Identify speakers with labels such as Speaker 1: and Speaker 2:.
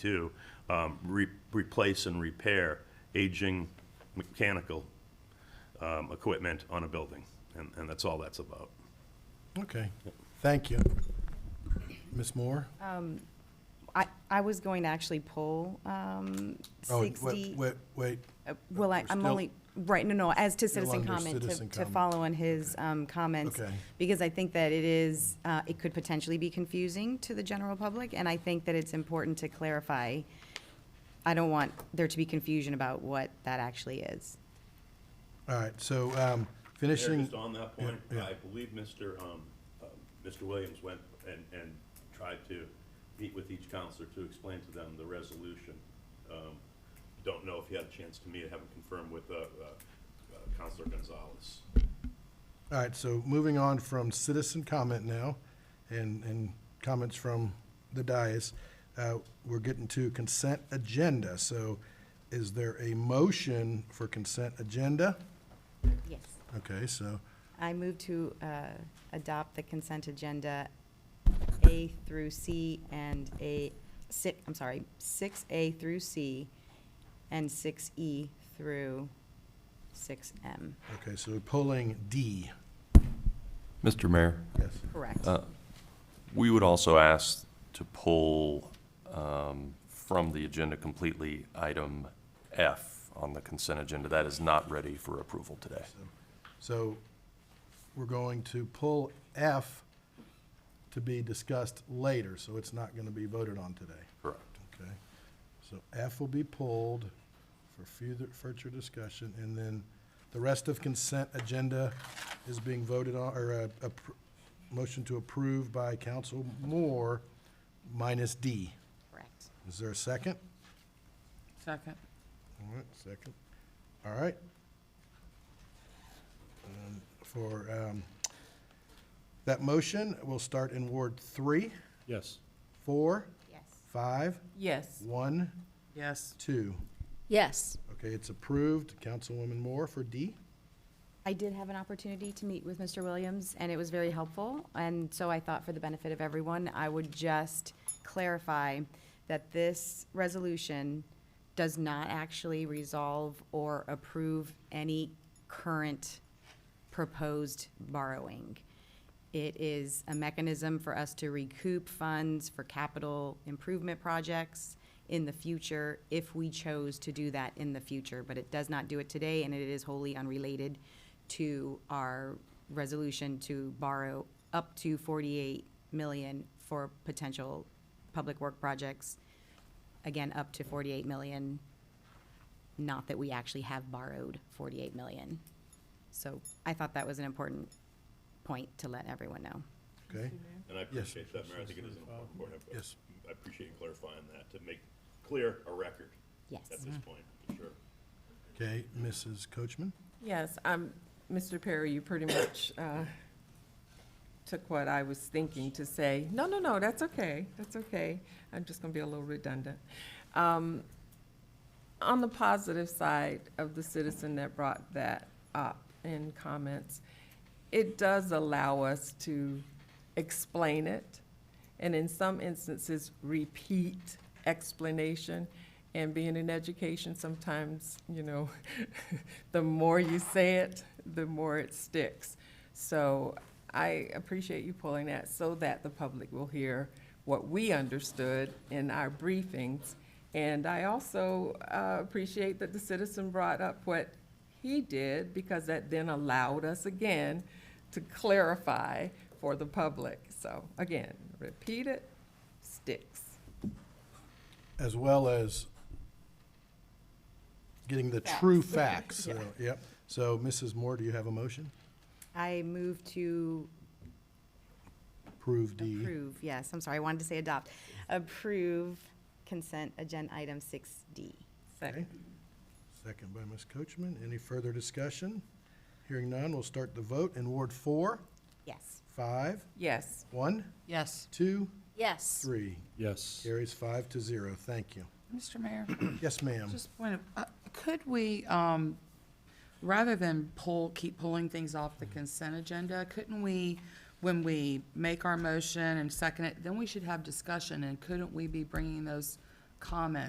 Speaker 1: too, um, re- replace and repair aging mechanical um, equipment on a building, and, and that's all that's about.
Speaker 2: Okay, thank you. Ms. Moore?
Speaker 3: I, I was going to actually pull um,
Speaker 2: Oh, wait,
Speaker 3: 60,
Speaker 2: Wait, wait,
Speaker 3: uh, well, I-
Speaker 2: we're
Speaker 3: I'm
Speaker 2: still-
Speaker 3: only, right, no, no, as to citizen
Speaker 2: under
Speaker 3: comment, to-
Speaker 2: citizen
Speaker 3: to
Speaker 2: comment.
Speaker 3: follow on his um, comments.
Speaker 2: Okay.
Speaker 3: Because I think that it is, uh, it could potentially be confusing to the general public, and I think that it's important to clarify. I don't want there to be confusion about what that actually is.
Speaker 2: all right, so
Speaker 1: Mayor,
Speaker 2: um, finishing,
Speaker 1: just on that point,
Speaker 2: Yeah, yeah.
Speaker 1: I believe Mr., um, um, Mr. Williams went and, and tried to meet with each counselor to explain to them the resolution. Um, Don't know if he had a chance to meet, I haven't confirmed with, uh, uh, uh, Counselor Gonzalez.
Speaker 2: all right, so moving on from citizen comment now, and, and comments from the dais, uh, we're getting to consent agenda. So is there a motion for consent agenda?
Speaker 3: Yes.
Speaker 2: Okay, so,
Speaker 3: I move to uh, adopt the consent agenda A through C and A, si, I'm sorry, six A through C and six E through six M.
Speaker 2: okay, so pulling D,
Speaker 4: Mr. Mayor,
Speaker 2: yes.
Speaker 3: Correct.
Speaker 4: Uh, we would also ask to pull um, from the agenda completely item F on the consent agenda. That is not ready for approval today.
Speaker 2: So we're going to pull F to be discussed later, so it's not going to be voted on today.
Speaker 4: Correct.
Speaker 2: Okay? So F will be pulled for further, future discussion, and then the rest of consent agenda is being voted on, or a, a pr- motion to approve by Council Moore minus D.
Speaker 3: Correct.
Speaker 2: Is there a second?
Speaker 5: Second.
Speaker 2: All right, second. All right. Um, For um, that motion, we'll start in Ward three,
Speaker 1: Yes.
Speaker 2: four,
Speaker 3: Yes.
Speaker 2: five,
Speaker 5: Yes.
Speaker 2: one,
Speaker 5: Yes.
Speaker 2: two.
Speaker 6: Yes.
Speaker 2: Okay, it's approved. Councilwoman Moore for D.
Speaker 3: I did have an opportunity to meet with Mr. Williams, and it was very helpful. And so I thought for the benefit of everyone, I would just clarify that this resolution does not actually resolve or approve any current proposed borrowing. It is a mechanism for us to recoup funds for capital improvement projects in the future if we chose to do that in the future, but it does not do it today, and it is wholly unrelated to our resolution to borrow up to forty-eight million for potential public work projects. Again, up to forty-eight million, not that we actually have borrowed forty-eight million. So I thought that was an important point to let everyone know.
Speaker 2: Okay?
Speaker 1: And I appreciate that, Mayor, I think it is an important point. I-
Speaker 2: Yes.
Speaker 1: I appreciate you clarifying that to make clear a record
Speaker 3: Yes.
Speaker 1: at this point, for sure.
Speaker 2: Okay, Mrs. Coachman?
Speaker 5: Yes, um, Mr. Perry, you pretty much, uh, took what I was thinking to say. No, no, no, that's okay, that's okay. I'm just gonna be a little redundant. Um, on the positive side of the citizen that brought that up in comments, it does allow us to explain it, and in some instances, repeat explanation. And being in education, sometimes, you know, the more you say it, the more it sticks. So I appreciate you pulling that so that the public will hear what we understood in our briefings. And I also uh, appreciate that the citizen brought up what he did because that then allowed us again to clarify for the public. So again, repeat it, sticks.
Speaker 2: As well as getting the true facts. So, Yep. So Mrs. Moore, do you have a motion?
Speaker 3: I move to
Speaker 2: Approve D.
Speaker 3: approve, yes, I'm sorry, I wanted to say adopt. Approve consent agenda item six D.
Speaker 2: Okay.
Speaker 5: Second.
Speaker 2: Second by Ms. Coachman. Any further discussion? Hearing none, we'll start the vote in Ward four,
Speaker 3: Yes.
Speaker 2: five,
Speaker 5: Yes.
Speaker 2: one,
Speaker 7: Yes.
Speaker 2: two,
Speaker 6: Yes.
Speaker 2: three.
Speaker 8: Yes.
Speaker 2: Carries five to zero. Thank you.
Speaker 7: Mr. Mayor,
Speaker 2: Yes, ma'am.
Speaker 7: just point of, uh, could we, um, rather than pull, keep pulling things off the consent agenda, couldn't we, when we make our motion and second it, then we should have discussion, and couldn't we be bringing those comments